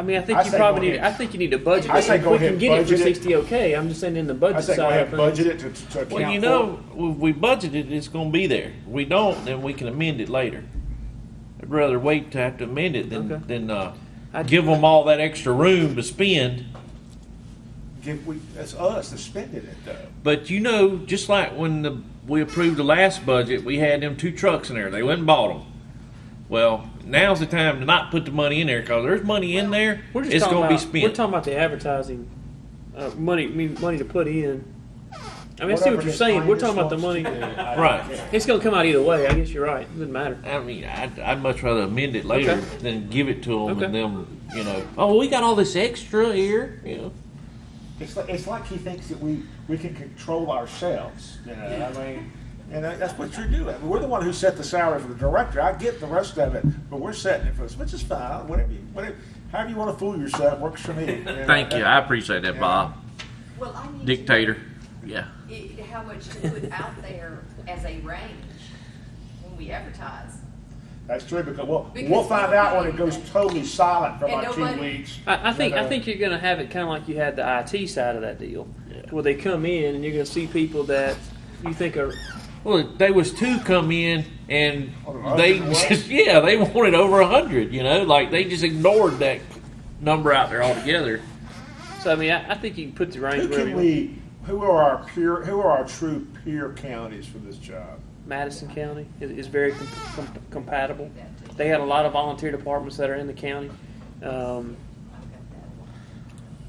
I mean, I think I you say probably go need. ahead. I think you need a budget. I say if go we ahead can and get it for budget it. sixty, okay. I'm just saying in the I budget say side go ahead of and things. budget it to, to- to account Well, you for- know, if we budgeted, it's gonna be there. We don't, then we can amend it later. I'd rather wait to have to amend it Okay. than, than, uh, I- give them all that extra room to spend. Give, we, that's us that's spending it though. But you know, just like when the, we approved the last budget, we had them two trucks in there. They went and bought them. Well, now's the time to not put the money in there because there's money in there. We're just it's talking gonna about, be spent. We're talking about the advertising uh, money. I mean, money to put in. I mean, I see Whatever what you're this saying. We're Congress talking about the money. wants to do, I don't Right. care. It's gonna come out either way. I guess you're right. It doesn't matter. I mean, I'd, I'd much rather amend it later Okay. than give it to them Okay. and them, you know, oh, we got all this extra here. You know, It's like, it's like he thinks that we, we can control ourselves, you know, I mean, and that- that's what you're doing. I mean, We're the one who set the salary for the director, I get the rest of it, but we're setting it for us, which is fine, whatever, you- whatever, however you wanna fool yourself, works for me. know. thank you. I appreciate that, Bob. Well, I need to know Dictator. Yeah. i- how much to put out there as a range when we advertise. That's true, because we'll, Because we'll find out when it nobody- goes totally silent for And about two nobody- weeks. I, I think you know. I think you're gonna have it kind of like you had the IT side of that deal, where they come in and you're gonna see people that you think are Well, they was two come in and Oh, they, the hundred just, yeah, they wanted over a hundred. You know, like they just ignored that number out there altogether. So I mean, I, I think you can put the range Who wherever can you want. we, who are our peer, who are our true peer counties for this job? Madison County is, is very com- com- compatible. That too. They had a lot of volunteer departments that are in the county. Um, I've got that one.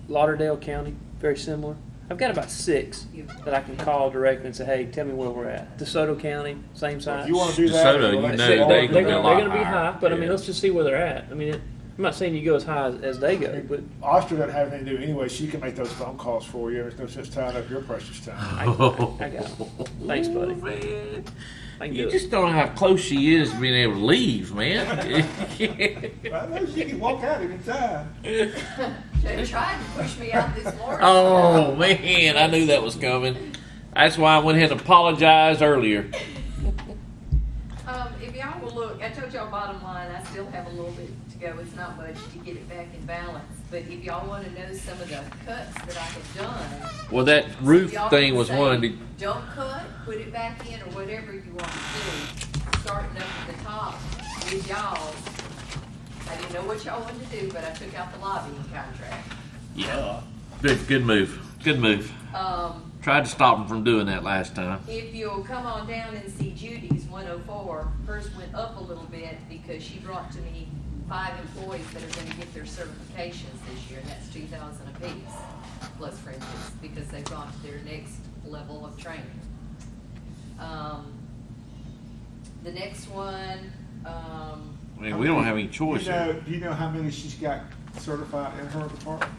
Lauderdale County, very similar. I've got about six that I can call directly and say, "Hey, tell me where we're at." DeSoto County, same If size. you wanna do that. Uh, DeSoto, well, you that's know all they're, they gonna be a gonna, lot they're gonna be higher. high, but I mean, Yeah. let's just see where they're at. I mean, it, I'm not saying you go as high as, as they go, but Austin doesn't have anything to do anyway. She can make those phone calls for you. There's no sense tying up your precious time. I, I, I got 'em. Thanks, buddy. Man, I can do you it. just don't know how close she is to being able to leave, man. I know she can walk out any time. They tried to push me out this morning. oh man, I knew that was coming. That's why I went ahead and apologized earlier. Um, if y'all will look, I told y'all bottom line, I still have a little bit to go, it's not much to get it back in balance. But if y'all wanna know some of the cuts that I have done. Well, that roof y'all thing can was say, one. Did, Don't cut, put it back in or whatever you want to do, starting up at the top with y'all. I didn't know what y'all wanted to do, but I took out the lobbying contract. yeah, good, good move. Good move. Um, Tried to stop him from doing that last time. If you'll come on down and see Judy's one oh four, hers went up a little bit because she brought to me five employees that are gonna get their certifications this year, and that's two thousand apiece, plus fringes, because they've gone to their next level of training. Um, the next one, um, I mean, we don't have any choice. You know, here. do you know how many she's got certified in her department?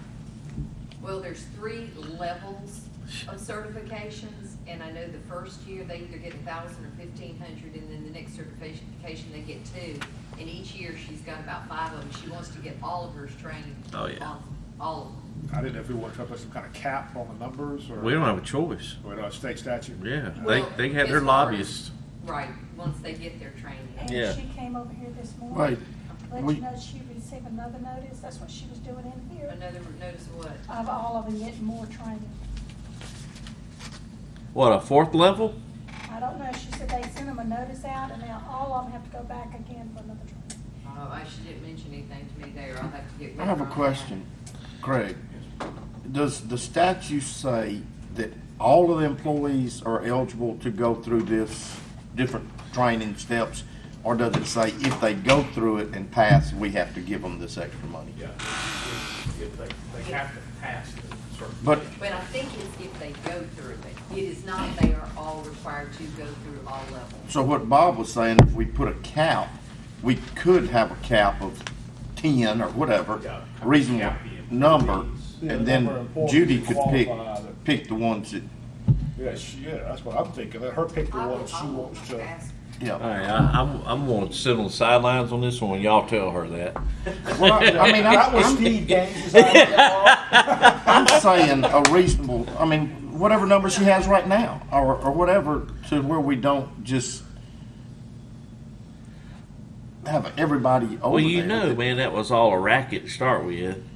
well, there's three levels of certifications, and I know the first year they either get a thousand or fifteen hundred, and then the next certification, they get two. And each year, she's got about five of them, she wants to get all of hers trained. Oh, yeah. on All of them. I didn't know if we wanted to put some kind of cap on the numbers or. We don't have a choice. Or a state statute. Yeah, Well, they they had their as far as- lobbyists. Right, once they get their training. And Yeah. she came over here this morning. Right. Let We- you know she received another notice, that's what she was doing in here, Another, notice what? of all of them getting more training. What a fourth level? I don't know, she said they sent them a notice out, and now all of them have to go back again for another training. Oh, I, she didn't mention anything to me there, I'll have to get with I have her a on that. question, Craig. Does the statute say that all of the employees are eligible to go through this different training steps? Or does it say if they go through it and pass, we have to give them this extra money? Yeah, if if they, they have to pass the certification. But But I think it's if they go through it, it is not they are all required to go through all levels. So what Bob was saying, if we put a cap, we could have a cap of ten or whatever, Yeah. reasonable Cap the employees. number, Yeah, and number of then employees Judy could pick, qualify that- pick the ones that, Yeah, she, yeah, that's what I'm thinking. Let her pick the I will- one she I will wants to. ask All yeah. right, I, I'm I'm going to sit on the sidelines on this one. Y'all tell her that. Well, I I mean, That was I- Steve Gaines' idea. I'm, I'm saying a reasonable, I mean, whatever number she has right now, or, or whatever, to where we don't just have everybody over Well, you there know, that- man, that was all a racket to start with.